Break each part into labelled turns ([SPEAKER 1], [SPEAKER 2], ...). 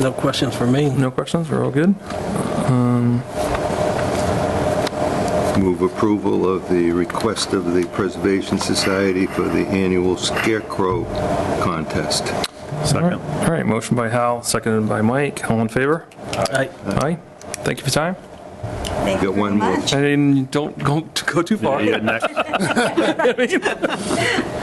[SPEAKER 1] No questions for me.
[SPEAKER 2] No questions, we're all good?
[SPEAKER 3] Move approval of the request of the Preservation Society for the annual scarecrow contest.
[SPEAKER 4] Second.
[SPEAKER 2] All right, motion by Hal, seconded by Mike. All in favor?
[SPEAKER 1] I-
[SPEAKER 2] Aye. Thank you for your time.
[SPEAKER 5] Thank you
[SPEAKER 3] Got one
[SPEAKER 5] very
[SPEAKER 3] more.
[SPEAKER 5] much.
[SPEAKER 2] And don't go, go too far.
[SPEAKER 4] Yeah, next.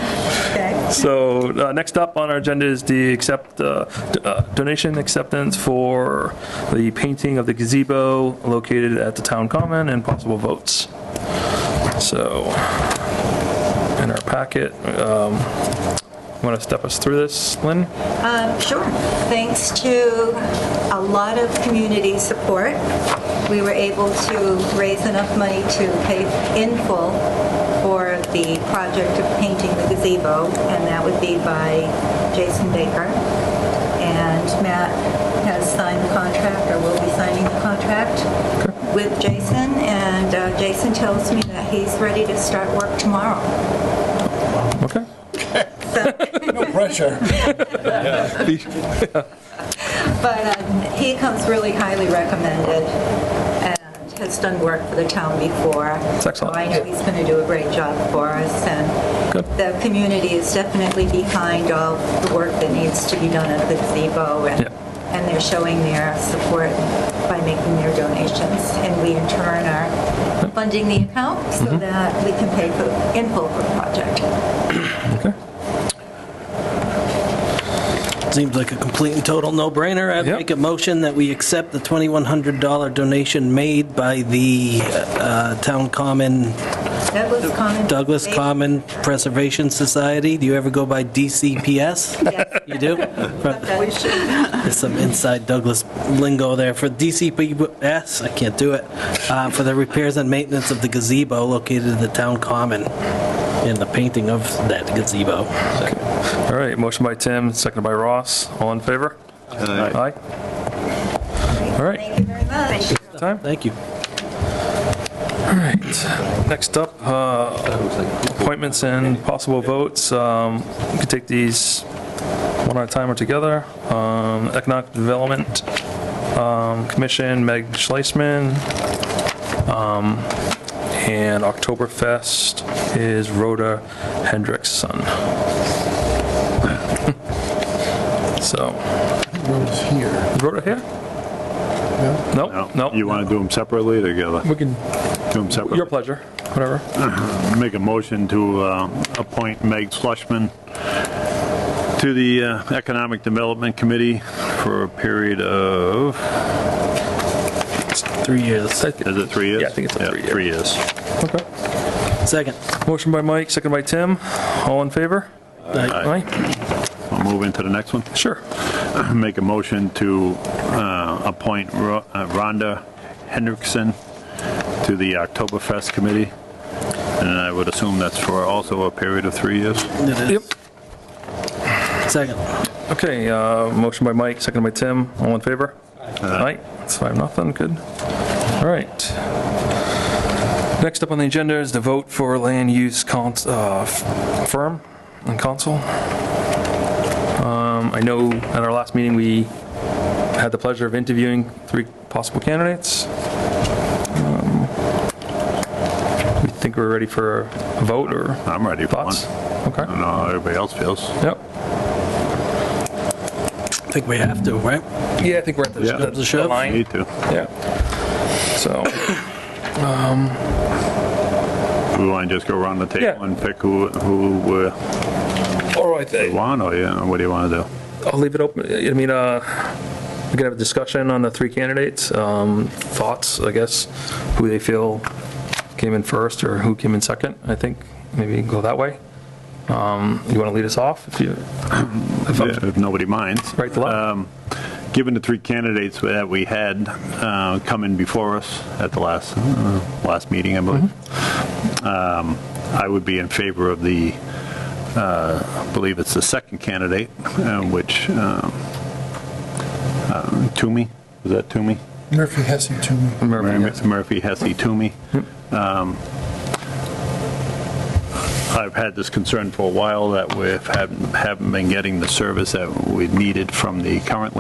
[SPEAKER 5] Okay.
[SPEAKER 2] So uh, next up on our agenda is the accept, uh, d- uh, donation acceptance for the painting of the gazebo located at the town common and possible votes. So in our packet, want to step us through this, Lynn?
[SPEAKER 5] um, Sure. Thanks to a lot of community support, we were able to raise enough money to pay in full for the project of painting the gazebo, and that would be by Jason Baker. And Matt has signed the contract, or will be signing the contract with Jason, and uh, Jason tells me that he's ready to start work tomorrow.
[SPEAKER 2] Okay.
[SPEAKER 6] pressure.
[SPEAKER 5] But um, he comes really highly recommended and has done work for the town before. That's
[SPEAKER 2] excellent.
[SPEAKER 5] So I know he's going to do a great job for us, and
[SPEAKER 2] Good.
[SPEAKER 5] the community is definitely behind all the work that needs to be done at the gazebo, and
[SPEAKER 2] Yeah.
[SPEAKER 5] and they're showing their support by making their donations, and we in turn are funding the account so
[SPEAKER 2] Mm-hmm.
[SPEAKER 5] that we can pay for, in full for the project.
[SPEAKER 1] Seems like a complete and total no-brainer. I'd
[SPEAKER 2] Yep.
[SPEAKER 1] make a motion that we accept the $2,100 donation made by the uh, Town Common,
[SPEAKER 5] Douglas Common.
[SPEAKER 1] Douglas
[SPEAKER 5] They-
[SPEAKER 1] Common Preservation Society. Do you ever go by DCPS?
[SPEAKER 5] Yes.
[SPEAKER 1] You do? There's some inside Douglas lingo there. For DCPS, I can't do it, uh, for the repairs and maintenance of the gazebo located in the Town Common and the painting of that gazebo.
[SPEAKER 2] All right, motion by Tim, seconded by Ross. All in favor? Aye. All right.
[SPEAKER 5] Thank you very much.
[SPEAKER 2] Time?
[SPEAKER 1] Thank you.
[SPEAKER 2] Next up, uh, appointments and possible votes. Um, We could take these one at a time or together. Um, Economic Development um, Commission, Meg Schleisman. Um, And Oktoberfest is Rhoda Hendrickson. So. Rhoda's here. Rhoda here? No? No?
[SPEAKER 4] No, You want to do them separately or together?
[SPEAKER 2] We can,
[SPEAKER 4] Do them
[SPEAKER 2] your
[SPEAKER 4] separately.
[SPEAKER 2] pleasure, whatever.
[SPEAKER 4] Make a motion to uh, appoint Meg Schlesman to the uh, Economic Development Committee for a period of,
[SPEAKER 1] Three years.
[SPEAKER 4] is it three years?
[SPEAKER 2] Yeah, I think it's a
[SPEAKER 4] Yeah,
[SPEAKER 2] three-year.
[SPEAKER 4] Three years.
[SPEAKER 2] Okay.
[SPEAKER 1] Second.
[SPEAKER 2] Motion by Mike, second by Tim. All in favor?
[SPEAKER 1] Aye.
[SPEAKER 2] Aye.
[SPEAKER 4] We'll move into the next one.
[SPEAKER 2] Sure.
[SPEAKER 4] Make a motion to uh, appoint Ro- uh, Rhonda Hendrickson to the Oktoberfest Committee, and I would assume that's for also a period of three years.
[SPEAKER 1] It
[SPEAKER 2] Yep.
[SPEAKER 1] is. Second.
[SPEAKER 2] Okay, uh, motion by Mike, second by Tim. All in favor? Aye. It's five, nothing, good. All right. Next up on the agenda is the vote for land use cons, uh, f- firm and council. Um, I know at our last meeting, we had the pleasure of interviewing three possible candidates. Um, We think we're ready for a vote or
[SPEAKER 4] I'm ready for one. Uh-huh.
[SPEAKER 2] thoughts?
[SPEAKER 4] I
[SPEAKER 2] Okay,
[SPEAKER 4] don't know how everybody else feels.
[SPEAKER 2] yep.
[SPEAKER 1] I think we have to, right?
[SPEAKER 2] Yeah, I think we're at
[SPEAKER 4] Yeah.
[SPEAKER 2] the-
[SPEAKER 1] The
[SPEAKER 2] the
[SPEAKER 1] shove.
[SPEAKER 2] line.
[SPEAKER 4] Need to.
[SPEAKER 2] Yeah. So,
[SPEAKER 4] We want to just go around the
[SPEAKER 2] Yeah.
[SPEAKER 4] table and pick who, who we
[SPEAKER 2] all right, I-
[SPEAKER 4] want, or yeah, what do you want to do?
[SPEAKER 2] I'll leave it open. I mean, uh, we can have a discussion on the three candidates, um, thoughts, I guess, who they feel came in first or who came in second, I think. Maybe go that way. Um, You want to lead us off if you, if I'm
[SPEAKER 4] If nobody minds.
[SPEAKER 2] right to left?
[SPEAKER 4] Given the three candidates that we had uh, come in before us at the last, uh, last meeting, I believe,
[SPEAKER 2] Mm-hmm.
[SPEAKER 4] um, I would be in favor of the, uh, I believe it's the second candidate, uh, which, um, um, Toomey, is that Toomey?
[SPEAKER 6] Murphy has you to me.
[SPEAKER 2] Murphy, yes.
[SPEAKER 4] Murphy, Murphy Hesse, Toomey. Um, I've had this concern for a while that we haven't haven't been getting the service that we needed from the current